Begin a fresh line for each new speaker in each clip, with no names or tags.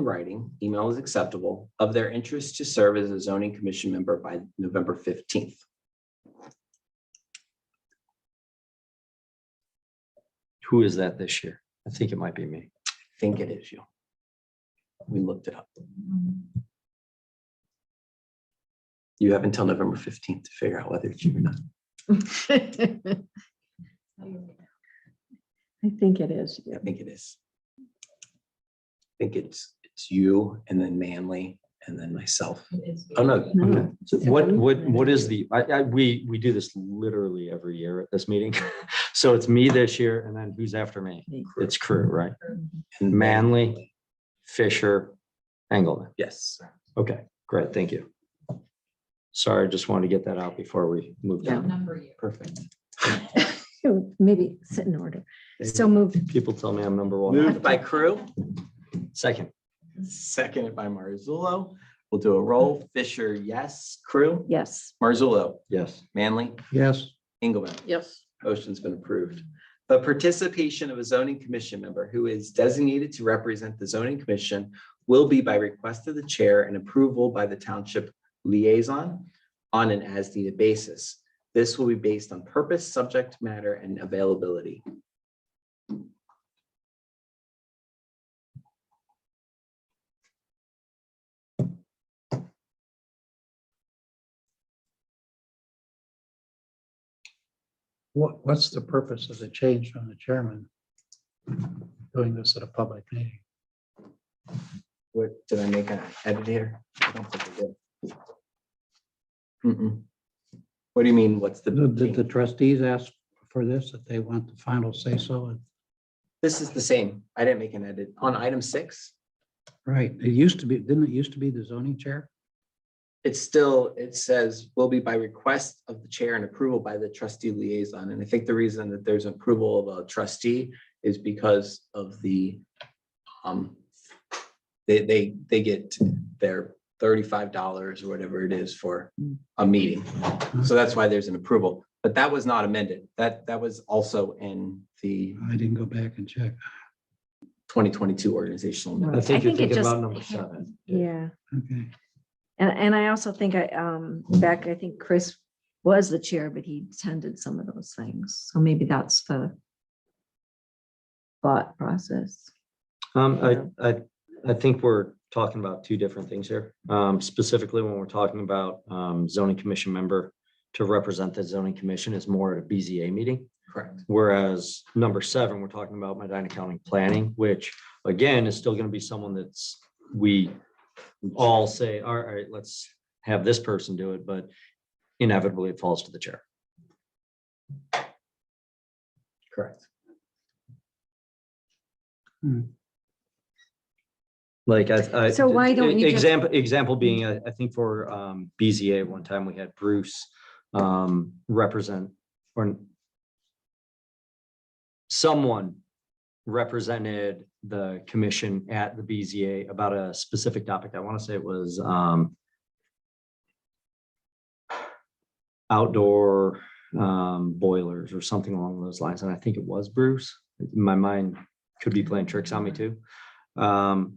in writing, email is acceptable, of their interest to serve as a zoning commission member by November fifteenth.
Who is that this year? I think it might be me.
I Think it is you. We looked it up. You have until November fifteenth to figure out whether it's you or not.
I think it is.
I think it is. I think it's, it's you and then Manley and then myself. Oh, no.
No.
So What, what, what is the, I, I, we, we do this literally every year at this meeting. So it's me this year and then who's after me?
Me.
It's crew, right?
and
Manley, Fisher, Engelman.
Yes,
Okay, great. Thank you. Sorry, I just wanted to get that out before we moved
Yeah.
on.
Number you.
perfect.
Maybe sit in order. So moved.
People tell me I'm number one.
Moved by Crew,
Second,
seconded by Marzullo. We'll do a roll. Fisher, yes. Crew,
Yes.
Marzullo,
yes.
Manley,
Yes.
Engelmann.
Yes.
Motion's been approved. The participation of a zoning commission member who is designated to represent the zoning commission will be by request of the chair and approval by the township liaison on an as-needed basis. This will be based on purpose, subject matter, and availability.
What, what's the purpose of the change from the chairman? Doing this at a public meeting?
What, did I make an edit here? I don't think I did. Mm-mm. What do you mean, what's the?
Did did the trustees ask for this, that they want the final say so? And-
This is the same. I didn't make an edit. On item six,
Right, it used to be, didn't it used to be the zoning chair?
it's still, it says will be by request of the chair and approval by the trustee liaison. And I think the reason that there's approval of a trustee is because of the, um, they, they, they get their thirty-five dollars or whatever it is for a meeting. So that's why there's an approval, but that was not amended. That, that was also in the
I didn't go back and check.
twenty twenty-two organizational. amendment.
I think you're
it
thinking
just-
about number seven.
Yeah.
Okay,
And, and I also think I, um, back, I think Chris was the chair, but he attended some of those things. So maybe that's the thought process.
Um, I, I, I think we're talking about two different things here. Um, specifically when we're talking about, um, zoning commission member to represent the zoning commission is more at a BZA meeting.
Correct.
Whereas number seven, we're talking about Medina County Planning, which again is still going to be someone that's, we all say, all right, let's have this person do it, but inevitably it falls to the chair.
Correct.
Like I. I-
So why don't you just-
Example, example being, I, I think for um, BZA, one time we had Bruce um, represent or someone represented the commission at the BZA about a specific topic. I want to say it was um, outdoor um, boilers or something along those lines. And I think it was Bruce. My mind could be playing tricks on me too. Um,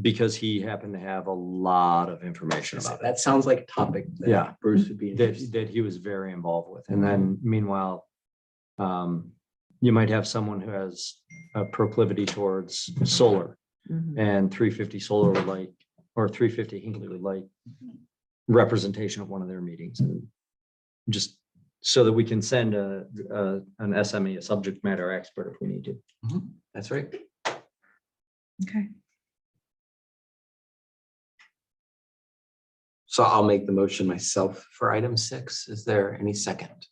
because he happened to have a lot of information about it
That sounds like a topic. that
Yeah.
Bruce would be
that,
interested.
that he was very involved with. And then meanwhile, um, you might have someone who has a proclivity towards solar
Mhm.
and three fifty solar would like, or three fifty Hinkley would like representation at one of their meetings and just so that we can send a, a- an SME, a subject matter expert if we need to.
That's right.
Okay.
So I'll make the motion myself for item six. Is there any second?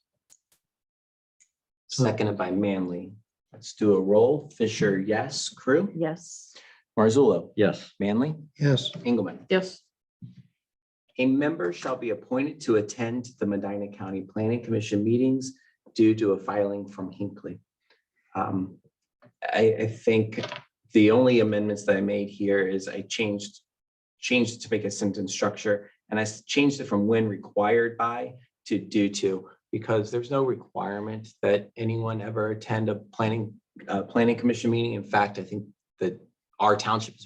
Seconded by Manley. Let's do a roll. Fisher, yes. Crew,
Yes.
Marzullo,
Yes.
Manley,
yes,
Engelmann.
Yes.
A member shall be appointed to attend the Medina County Planning Commission meetings due to a filing from Hinckley. Um, I, I think the only amendments that I made here is I changed, changed to make a sentence structure, and I s- changed it from when required by to due to, because there's no requirement that anyone ever attend a planning, uh, planning commission meeting. In fact, I think that our township is